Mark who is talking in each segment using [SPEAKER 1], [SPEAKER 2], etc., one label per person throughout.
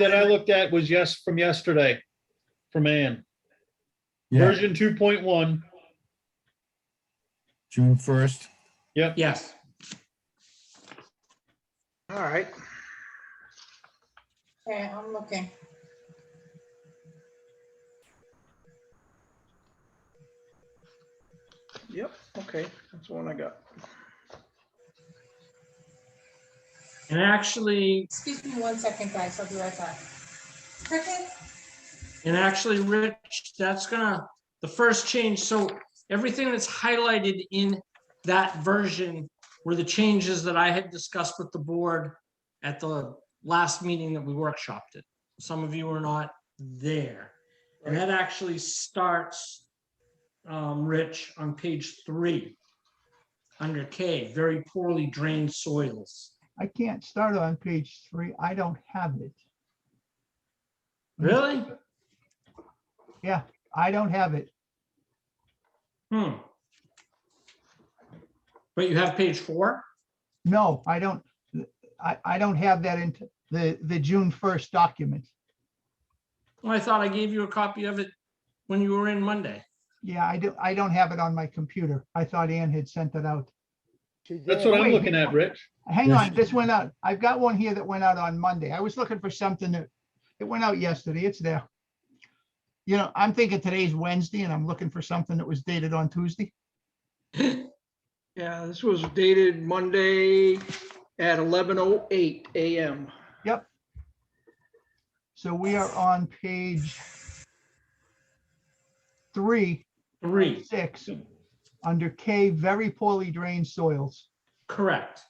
[SPEAKER 1] that I looked at was yes, from yesterday, from Ann.
[SPEAKER 2] Yeah,
[SPEAKER 1] Version two point one,
[SPEAKER 2] June first.
[SPEAKER 3] Yes.
[SPEAKER 4] All right.
[SPEAKER 5] Okay, I'm looking.
[SPEAKER 4] Yep. Okay. That's the one I got.
[SPEAKER 3] And actually,
[SPEAKER 5] Excuse me one second, guys. I'll be right back. Cricket?
[SPEAKER 3] and actually, Rich, that's gonna, the first change, so everything that's highlighted in that version were the changes that I had discussed with the board at the last meeting that we workshopped it. Some of you were not there. And that actually starts, um, Rich, on page three, under K, very poorly drained soils.
[SPEAKER 6] I can't start on page three. I don't have it.
[SPEAKER 3] Really?
[SPEAKER 6] I don't have it.
[SPEAKER 3] Hmm. But you have page four?
[SPEAKER 6] No, I don't, I, I don't have that in the, the June first document.
[SPEAKER 3] Well, I thought I gave you a copy of it when you were in Monday.
[SPEAKER 6] Yeah, I do, I don't have it on my computer. I thought Ann had sent it out.
[SPEAKER 1] that's what I'm
[SPEAKER 6] Wait.
[SPEAKER 1] looking at, Rich.
[SPEAKER 6] Hang
[SPEAKER 2] Yes.
[SPEAKER 6] on, this went out. I've got one here that went out on Monday. I was looking for something that, it went out yesterday. It's there. You know, I'm thinking today's Wednesday and I'm looking for something that was dated on Tuesday.
[SPEAKER 4] Yeah, this was dated Monday at 11:08 a.m.
[SPEAKER 6] So we are on page three
[SPEAKER 3] Three,
[SPEAKER 6] six, under K, very poorly drained soils.
[SPEAKER 3] correct.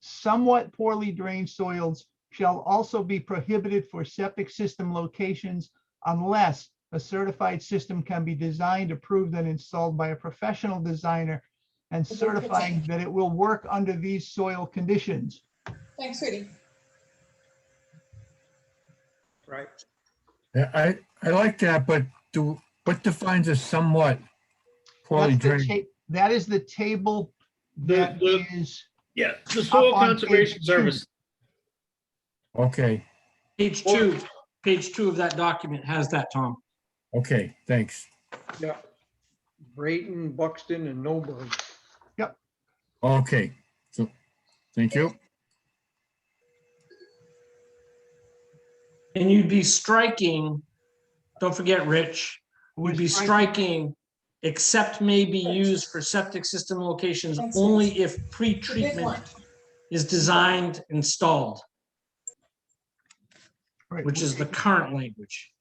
[SPEAKER 6] Somewhat poorly drained soils shall also be prohibited for septic system locations unless a certified system can be designed, approved, and installed by a professional designer and
[SPEAKER 5] Okay,
[SPEAKER 6] certifying
[SPEAKER 5] okay.
[SPEAKER 6] that it will work under these soil conditions.
[SPEAKER 5] Thanks, Rudy.
[SPEAKER 4] Right.
[SPEAKER 2] Yeah, I, I like that, but do, what defines a somewhat poorly
[SPEAKER 6] That's the
[SPEAKER 2] drained?
[SPEAKER 6] ta- That is the table
[SPEAKER 1] The,
[SPEAKER 6] that
[SPEAKER 1] the,
[SPEAKER 6] is,
[SPEAKER 1] yeah, the Soil
[SPEAKER 6] Up on
[SPEAKER 1] Conservation
[SPEAKER 6] page two.
[SPEAKER 1] Service.
[SPEAKER 2] Okay,
[SPEAKER 3] Page two, page two of that document has that, Tom.
[SPEAKER 2] okay, thanks.
[SPEAKER 4] Yeah. Brayton, Buxton, and Noble.
[SPEAKER 2] Okay, so, thank you.
[SPEAKER 3] And you'd be striking, don't forget, Rich, would be striking, except may be used for septic system locations
[SPEAKER 5] Thanks,
[SPEAKER 3] only if
[SPEAKER 5] The big one.
[SPEAKER 3] pre-treatment is designed, installed,
[SPEAKER 6] right,
[SPEAKER 3] which is the current language.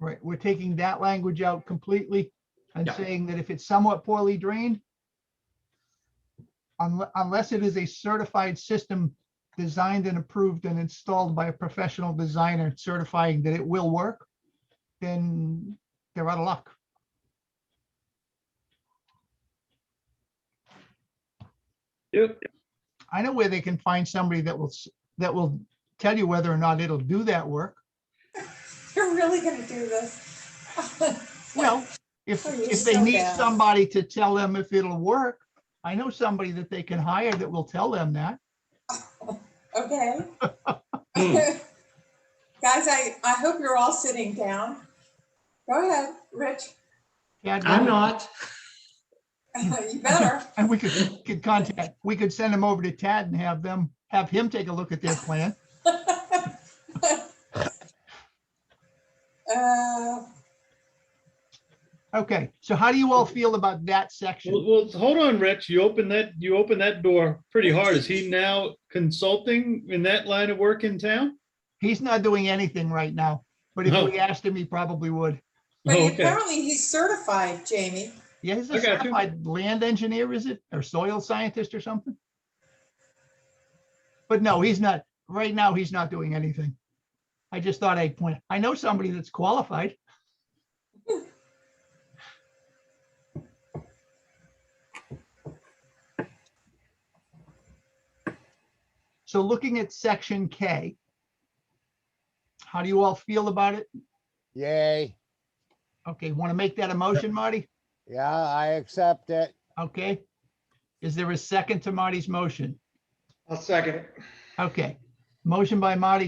[SPEAKER 6] Right, we're taking that language out completely and
[SPEAKER 3] Yeah.
[SPEAKER 6] saying that if it's somewhat poorly drained, unle- unless it is a certified system designed and approved and installed by a professional designer certifying that it will work, then they're out of luck.
[SPEAKER 1] Yep.
[SPEAKER 6] I know where they can find somebody that will, s- that will tell you whether or not it'll do that work.
[SPEAKER 5] You're really gonna do this.
[SPEAKER 6] Well, if,
[SPEAKER 5] Oh, you're
[SPEAKER 6] if they
[SPEAKER 5] so
[SPEAKER 6] need
[SPEAKER 5] bad.
[SPEAKER 6] somebody to tell them if it'll work, I know somebody that they can hire that will tell them that.
[SPEAKER 5] Okay.
[SPEAKER 3] Hmm.
[SPEAKER 5] Guys, I, I hope you're all sitting down. Go ahead, Rich.
[SPEAKER 6] Yeah,
[SPEAKER 3] I'm not.
[SPEAKER 5] You better.
[SPEAKER 6] And we could, could contact, we could send them over to Tad and have them, have him take a look at their plan.
[SPEAKER 5] Uh,
[SPEAKER 6] Okay, so how do you all feel about that section?
[SPEAKER 1] Well, well, hold on, Rich. You opened that, you opened that door pretty hard. Is he now consulting in that line of work in town?
[SPEAKER 6] He's not doing anything right now, but if
[SPEAKER 1] No.
[SPEAKER 6] we asked him, he probably would.
[SPEAKER 5] But he-
[SPEAKER 1] Oh, Okay.
[SPEAKER 5] apparently he's certified, Jamie.
[SPEAKER 6] Yeah, he's
[SPEAKER 1] I
[SPEAKER 6] a
[SPEAKER 1] got you.
[SPEAKER 6] certified land engineer, is it, or soil scientist or something? But no, he's not, right now, he's not doing anything. I just thought I'd point, I know somebody that's qualified. So looking at section K, how do you all feel about it?
[SPEAKER 7] Yay.
[SPEAKER 6] Okay, want to make that a motion, Marty?
[SPEAKER 7] Yeah, I accept it.
[SPEAKER 6] Okay. Is there a second to Marty's motion?
[SPEAKER 4] I'll second it.
[SPEAKER 6] Okay. Motion by Marty,